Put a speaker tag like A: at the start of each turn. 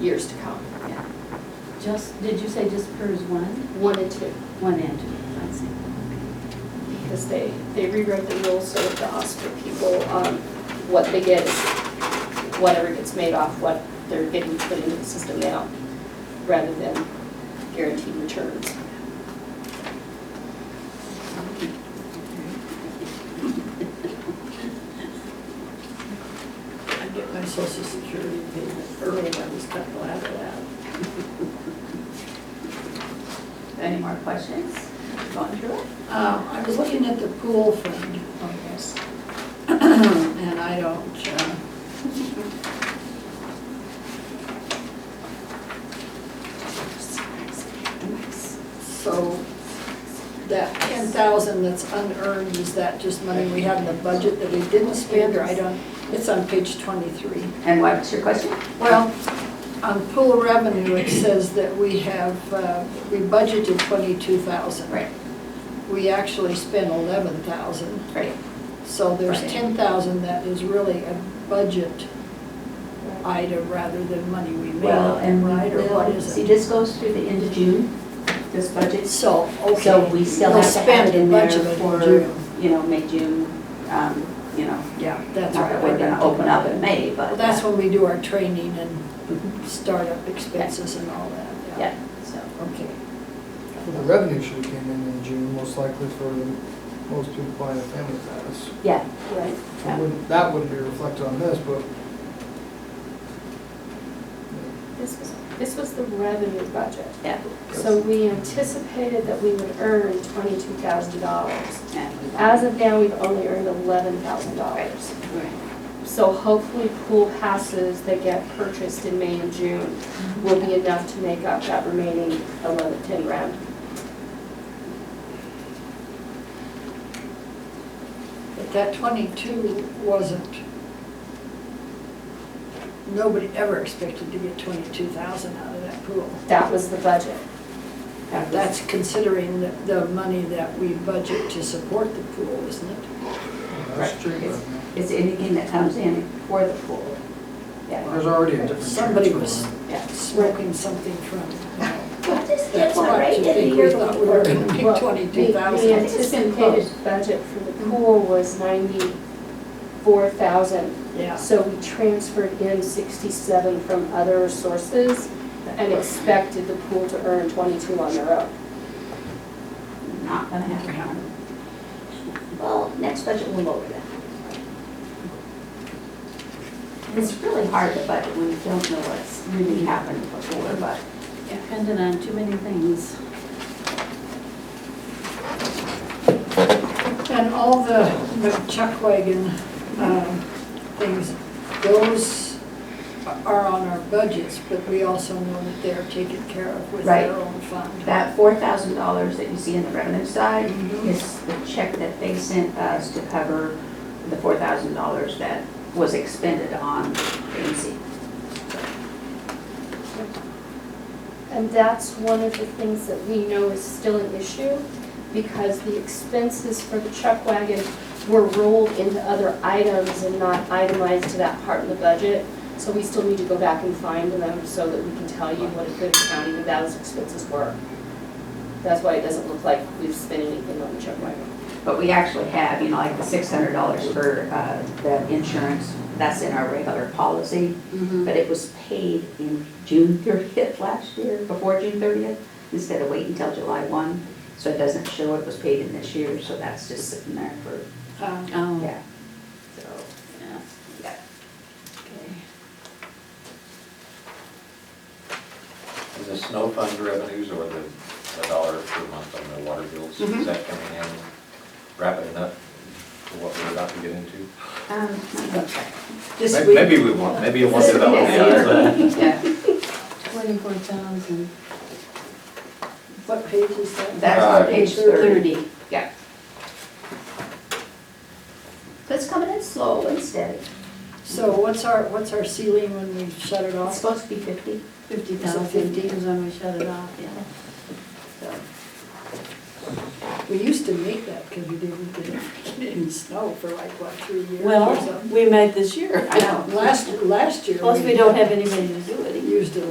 A: years to come. Yeah.
B: Just, did you say just PERS one?
A: One and two,
B: One and two, I see.
A: because they, they rewrote the rules so that the hospital people, um, what they get is whatever gets made off what they're getting put into the system now, rather than guaranteed returns.
C: I get my social security payment early, I was kind of glad of that.
B: Any more questions? Going through it?
C: Um, I was looking at the pool fund
A: Oh,
C: on this, and I don't, uh, so that ten thousand that's unearned, is that just money we have in the budget that we didn't spend, or I don't, it's on page twenty-three.
B: And what's your question?
C: Well, on pool revenue, it says that we have, uh, we budgeted twenty-two thousand.
B: Right.
C: We actually spent eleven thousand,
B: Right.
C: so there's
B: Right.
C: ten thousand that is really a budget item rather than money we made,
B: Well, and
C: right, or what
B: we'll,
C: is
B: see,
C: it?
B: this goes through the end of June, this budget.
C: So, okay.
B: So we still
C: we'll
B: have to have
C: spend
B: it in
C: a
B: there
C: bunch of it in
B: for,
C: June.
B: you know, May, June, um, you know.
C: Yeah, that's
B: Not
C: right.
B: that we're gonna open up in May, but.
C: Well, That's when we do our training and startup expenses and all that, yeah.
B: Yeah, so,
C: Okay.
D: Well, the revenue should have came in in June, most likely for the most people buying a family pass.
B: yeah, right.
D: So it
B: yeah.
D: wouldn't- That wouldn't be reflected on this, but
A: This was, this was the revenue budget.
B: Yeah.
A: So we anticipated that we would earn twenty-two thousand dollars.
B: And we-
A: As of now, we've only earned eleven thousand dollars.
B: Right.
A: So hopefully pool passes that get purchased in May and June will be enough to make up that remaining 11, 10 round.
C: But that twenty-two wasn't, nobody ever expected to get twenty-two thousand out of that pool.
A: That was the budget. That was-
C: That's considering the, the money that we budget to support the pool, isn't it?
D: that's true.
B: It's- It's anything that comes in for the pool. Yeah.
D: There's already a different.
C: Somebody
D: transfer
C: was
D: line.
B: Yeah.
C: smoking something from, it.
B: What is
C: that's why I think we thought we were gonna pick
A: Well,
C: twenty-two
A: The
C: thousand.
B: it's been close.
A: anticipated budget for the pool was 94,000.
C: Yeah,
A: So we transferred in 67 from other sources and expected the pool to earn 22 on their own.
B: Not gonna happen. Well, next budget will lower that. It's really hard to budget when you don't know what's really happened before, but.
E: Dependent on too many things.
C: and all the McChuck wagon, um, things, those are on our budgets, but we also know that they're taken care of with their
B: Right.
C: own fund.
B: That four thousand dollars that you see in the revenue side
E: Mm-hmm.
B: is the check that they sent us to cover the four thousand dollars that was expended on AMC.
A: And that's one of the things that we know is still an issue because the expenses for the chuck wagon were rolled into other items and not itemized to that part of the budget. So we still need to go back and find them so that we can tell you what a good accounting of those expenses were. That's why it doesn't look like we've spent anything on the chuck wagon.
B: But we actually have, you know, like the six hundred dollars for uh, the insurance, that's in our regular policy. But it was paid in June thirtieth last year, before June thirtieth, instead of waiting until July one. So it doesn't show it was paid in this year, so that's just sitting there for,
C: Uh,
E: Oh,
B: yeah. So,
E: yeah.
B: yeah.
F: And The snow fund revenues or the the dollar per month on the water bills,
B: Mhm.
C: Mm-hmm.
F: is that coming in rapid enough for what we're about to get into?
B: Um,
C: This
F: May-
C: week.
F: Maybe we want, maybe you want to know.
B: Yeah,
E: Twenty-four thousand.
C: What page is that?
B: that's
F: Uh,
B: on page thirty, yeah. So it's coming in slow and steady.
C: So what's our, what's our ceiling when we shut it
B: It's
C: off?
B: supposed to be fifty,
E: Fifty
C: So
E: thousand,
C: 50.
E: because when we shut it off, yeah.
B: so.
C: We used to make that because we didn't get any snow for like, what, three years or
E: Well,
C: something?
E: we made this year.
B: I know.
C: Last, last year.
E: Plus, we don't have anybody to do it either.
C: Used it